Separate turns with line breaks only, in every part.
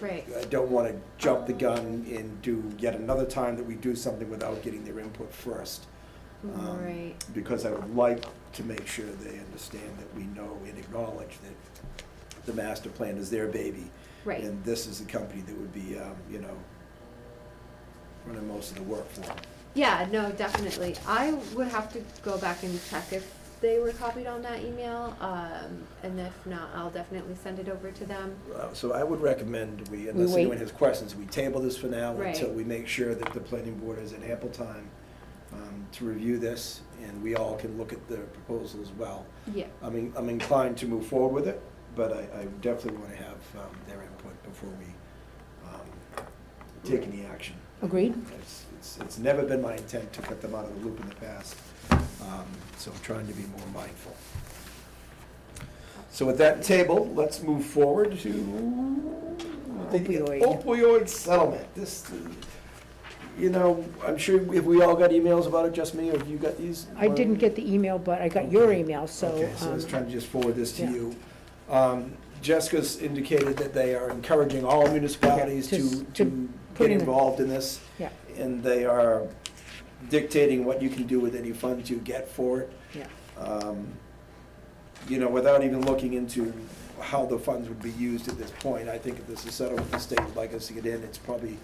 Right.
I don't want to jump the gun and do yet another time that we do something without getting their input first. Um,
Right.
Because I would like to make sure they understand that we know and acknowledge that the master plan is their baby.
Right.
And this is a company that would be, um, you know, running most of the work for them.
Yeah, no, definitely. I would have to go back and check if they were copied on that email, um, and if not, I'll definitely send it over to them.
Uh, So I would recommend we, unless anyone
wait.
has questions, we table this for now
Right.
until we make sure that the planning board has an ample time um, to review this and we all can look at the proposal as well.
Yeah,
I mean, I'm inclined to move forward with it, but I, I definitely want to have um, their input before we um, take any action.
Agreed.
It's, it's, it's never been my intent to cut them out of the loop in the past, um, so I'm trying to be more mindful. So with that table, let's move forward to.
Opioid.
Opioid settlement, this, you know, I'm sure, have we all got emails about it, just me, or have you got these?
I didn't
Mark?
get the email, but I got your
Okay.
email, so.
Okay, so I was
um,
trying to just forward this to
yeah.
you. Um, Jessica's indicated that they are encouraging all municipalities
Yeah,
to,
just to
to
put
get
in the-
involved in this.
Yeah.
And they are dictating what you can do with any funds you get for it.
Yeah,
Um, You know, without even looking into how the funds would be used at this point, I think if this is settled with the state, would like us to get in, it's probably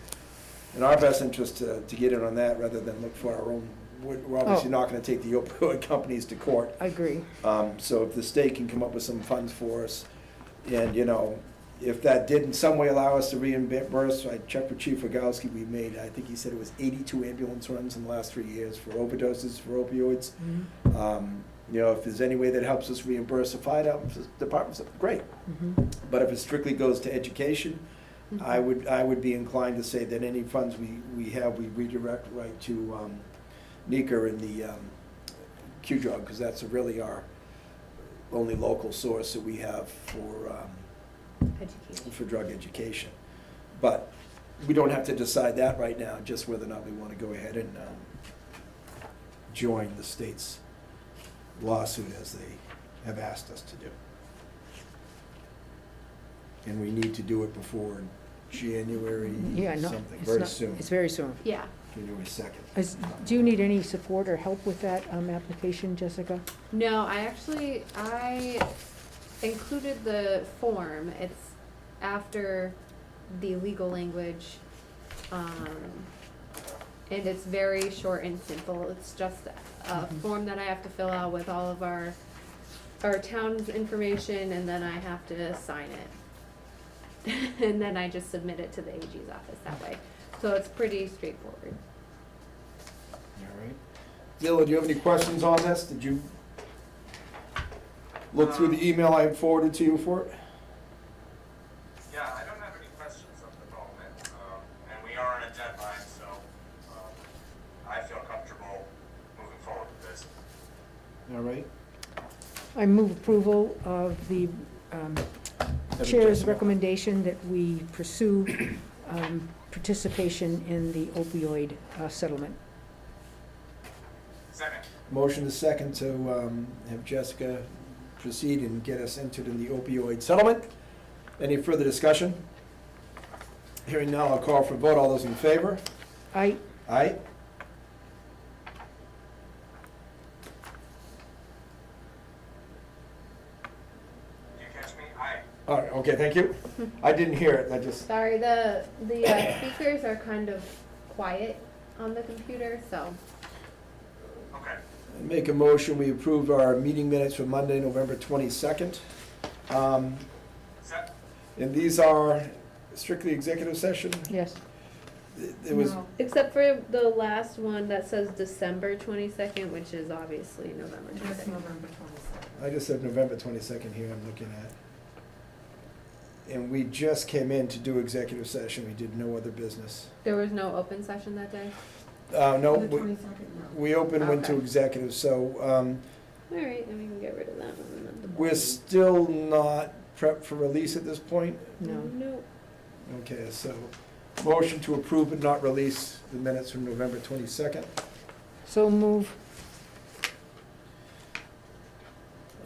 in our best interest to, to get in on that rather than look for our own, we're we're obviously
Oh.
not gonna take the opioid companies to court.
I agree.
Um, So if the state can come up with some funds for us, and, you know, if that did in some way allow us to reimburse, I checked with Chief Rogowski, we made, I think he said it was 82 ambulance runs in the last three years for overdoses, for opioids. Um, You know, if there's any way that helps us reimburse the fire departments, great.
Mhm.
But if it strictly goes to education, I would, I would be inclined to say that any funds we, we have, we redirect right to um, NECA and the um, Q-Drug, because that's really our only local source that we have for, um,
education.
for drug education. But we don't have to decide that right now, just whether or not we want to go ahead and um, join the state's lawsuit as they have asked us to do. And we need to do it before January
Yeah, no,
something,
it's
very
not,
soon,
it's very soon.
Yeah,
January 2nd.
Is- Do you need any support or help with that um, application, Jessica?
no, I actually, I included the form, it's after the legal language, um, and it's very short and simple, it's just a
Mhm.
form that I have to fill out with all of our, our town's information, and then I have to sign it. And then I just submit it to the AG's office that way, so it's pretty straightforward.
All right. Zilla, do you have any questions on this? Did you look through the email I forwarded to you for it?
Yeah, I don't have any questions at the moment, um, and we are on a deadline, so, um, I feel comfortable moving forward with this.
All right.
I move approval of the um, chair's recommendation that we pursue um, participation in the opioid uh, settlement.
Second,
Motion is second to um, have Jessica proceed and get us entered in the opioid settlement. Any further discussion? Hearing none, I'll call for a vote. All those in favor?
I,
Aye?
do you catch me? Aye.
All right, okay, thank you. I didn't hear it, I just,
Sorry, the, the uh, speakers are kind of quiet on the computer, so.
Okay,
make a motion, we approve our meeting minutes for Monday, November 22nd. Um,
set,
And these are strictly executive session?
yes,
It was,
Except for the last one that says December twenty-second, which is obviously November
Just
twenty-second.
November twenty-second.
I just said November 22nd here, I'm looking at. And we just came in to do executive session, we did no other business.
There was no open session that day?
Uh, no,
The
we,
twenty-second, no.
we opened, went to
Okay.
executive, so, um,
All right, then we can get rid of that one. at the
we're
bottom.
still not prepped for release at this point.
no.
No,
Okay, so, motion to approve but not release the minutes from November 22nd.
So move,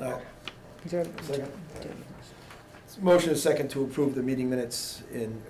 Uh,
is there-
Second. Motion is second to approve the meeting minutes in